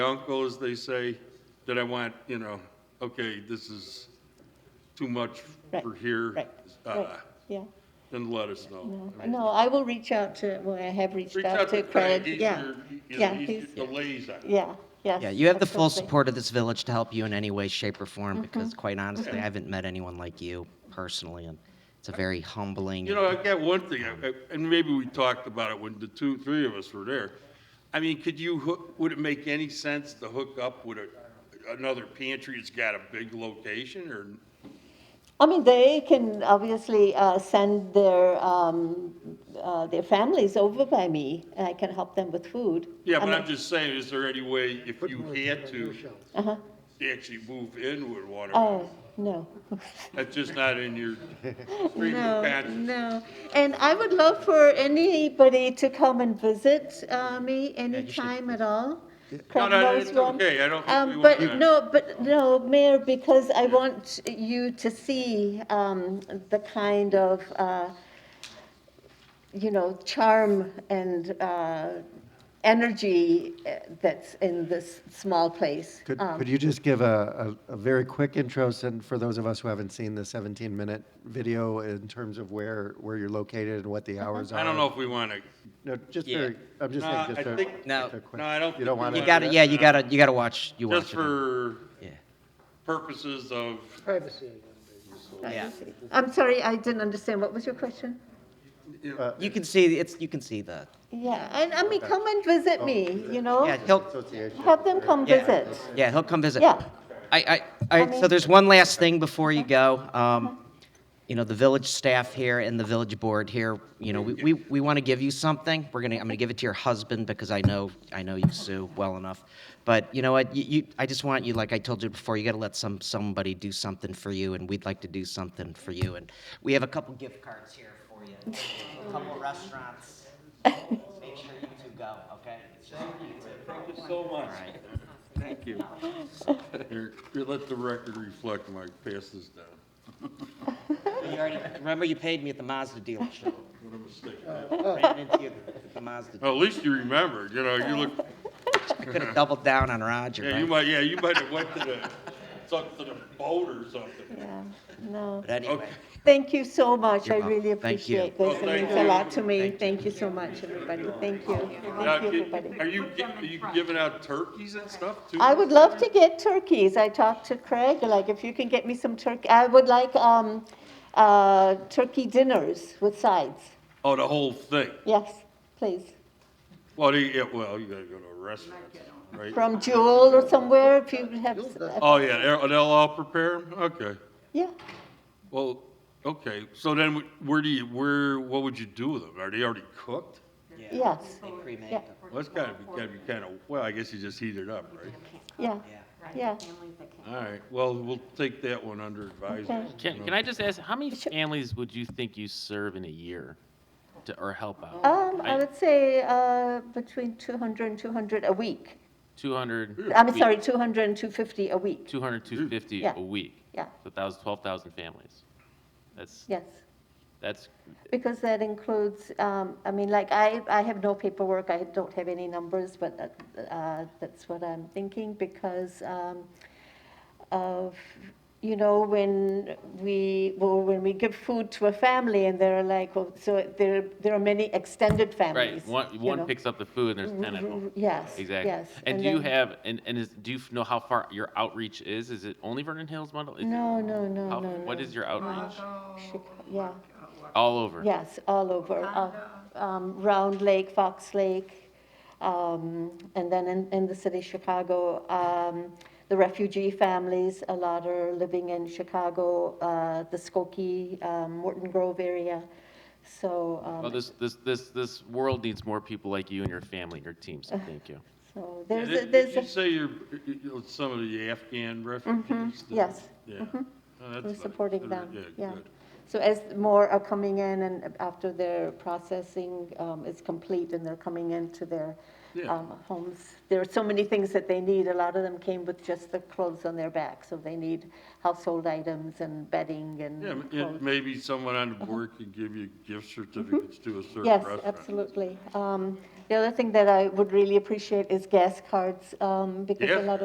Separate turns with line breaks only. uncles, they say, that I want, you know, okay, this is too much
Right,
for here.
Right,
uh,
right, yeah.
Then let us know. I mean,
No, I will reach out to, well, I have reached
Reach
out to
Craig,
Craig,
he's
yeah.
your, you know,
Yeah,
he's
he's-
your- the liaison.
yeah, yes.
Yeah, you have the full
absolutely.
support of this village to help you in any way, shape, or form, because quite honestly, I haven't met anyone like you personally, and it's a very humbling.
You know, I got one thing, I- I- and maybe we talked about it when the two, three of us were there. I mean, could you, hook? would it make any sense to hook up with a, another pantry that's got a big location or?
I mean, they can obviously uh, send their, um, uh, their families over by me, and I can help them with food.
Yeah, but
I
I'm
mean,
just saying, is there any way, if you had to,
Uh-huh,
actually move in with one or?
oh, no.
That's just not in your stream of
No,
consciousness.
no. And I would love for anybody to come and visit uh, me anytime at all.
No,
Craig
no,
knows
it's
one.
okay, I don't think we
Um,
want
But
to.
no, but no, Mayor, because I want you to see um, the kind of, uh, you know, charm and uh, energy uh, that's in this small place.
Could,
Um,
could you just give a, a, a very quick intro, and for those of us who haven't seen the 17-minute video, in terms of where, where you're located and what the hours are?
Uh-huh. I don't know if we want to,
No, just
Yeah.
very, I'm just
No,
saying,
I
just a,
think-
No.
just a quick-
No, I don't
You
think
don't
we
want
You
need
to?
that.
gotta, yeah, you gotta, you gotta watch, you watch it.
just for
Yeah.
purposes of,
yeah.
I'm sorry, I didn't understand. What was your question?
you know,
You can see, it's, you can see the,
Yeah, and I mean, come and visit me, you know?
Oh, yeah, he'll,
Association.
Have them come
Yeah.
visit.
yeah, he'll come visit.
Yeah.
I, I, I, so there's one last thing before you go. Um, you know, the village staff here and the village board here, you know, we, we, we want to give you something. We're gonna, I'm gonna give it to your husband because I know, I know you, Sue, well enough. But you know what, you, you, I just want you, like I told you before, you gotta let some, somebody do something for you and we'd like to do something for you. And we have a couple gift cards here for you, a couple restaurants. Make sure you two go, okay? It's just for you two.
thank you so much. Thank you.
Uh,
Here, here, let the record reflect, Mike, pass this down.
You already, remember you paid me at the Mazda dealership.
What a mistake.
Oh.
Ran into you at the Mazda.
Well, At least you remembered, you know, you look,
I could have doubled down on Roger.
yeah,
right?
you might, yeah, you might have went to the, something, to the boat or something.
Yeah, no.
But anyway,
Okay.
Thank you so much. I
You're welcome.
really
Thank you.
appreciate this. It
Oh, thank
means a
you.
lot to me. Thank you so much, everybody. Thank you. Thank
Now,
you,
gi- Are
everybody.
you, gi- are you giving out turkeys and stuff too?
I would love to get turkeys. I talked to Craig, like, if you can get me some turkey, I would like, um, uh, turkey dinners with sides.
Oh, the whole thing?
Yes, please.
Well, you- yeah, well, you gotta go to a restaurant, right?
From Jewel or somewhere, if you have, uh,
Oh, yeah, they'll- they'll all prepare 'em? Okay.
yeah.
Well, okay, so then wh- where do you, where, what would you do with them? Are they already cooked?
yeah,
Yes,
they cremate
yeah.
them.
Well, that's gotta be, gotta be kinda, well, I guess you just heat it up, right?
yeah, yeah.
All right, well, we'll take that one under advisement.
Can, can I just ask, how many families would you think you serve in a year to, or help out?
Um, I
I-
would say, uh, between 200 and 200 a week.
200?
I'm sorry, 200 and 250 a week,
200, 250
Yeah.
a week.
yeah,
So 1,000, 12,000 families. That's,
yes.
that's,
Because that includes, um, I mean, like, I, I have no paperwork, I don't have any numbers, but uh, that's what I'm thinking, because um, of, you know, when we, well, when we give food to a family, and they're like, well, so there, there are many extended families.
right, one,
you
one
know.
picks up the food and there's 10 at
R-
home.
r- Yes,
Exactly.
yes.
And do you
then-
have, and, and is, do you f- know how far your outreach is? Is it only Vernon Hills model? Is it-
No, no, no,
how-
no,
What
no.
is your outreach?
Uh, Chica- Yeah.
All over?
Yes, all over, uh, um, Round Lake, Fox Lake, um, and then in, in the city of Chicago, um, the refugee families, a lot are living in Chicago, uh, the Skokie, um, Morton Grove area, so,
Well,
um,
this, this, this, this world needs more people like you and your family and your team, so thank you.
so
Did
there's, a-
did
there's,
you
a-
say you're, you know, some of the Afghan refugees? that-
Mm-hmm. yes.
Yeah. Oh, that's
we're
nice.
supporting them,
Yeah,
yeah.
good.
So as more are coming in and after their processing um, is complete and they're coming into their
Yeah.
um, homes, there are so many things that they need. A lot of them came with just the clothes on their back, so they need household items and bedding and
Yeah, m- yeah,
clothes.
maybe someone on the board could give you gift certificates to a certain
Uh-huh. Mm-hmm. Yes,
restaurant.
absolutely. Um, The other thing that I would really appreciate is gas cards, um, because
Yeah.
a lot of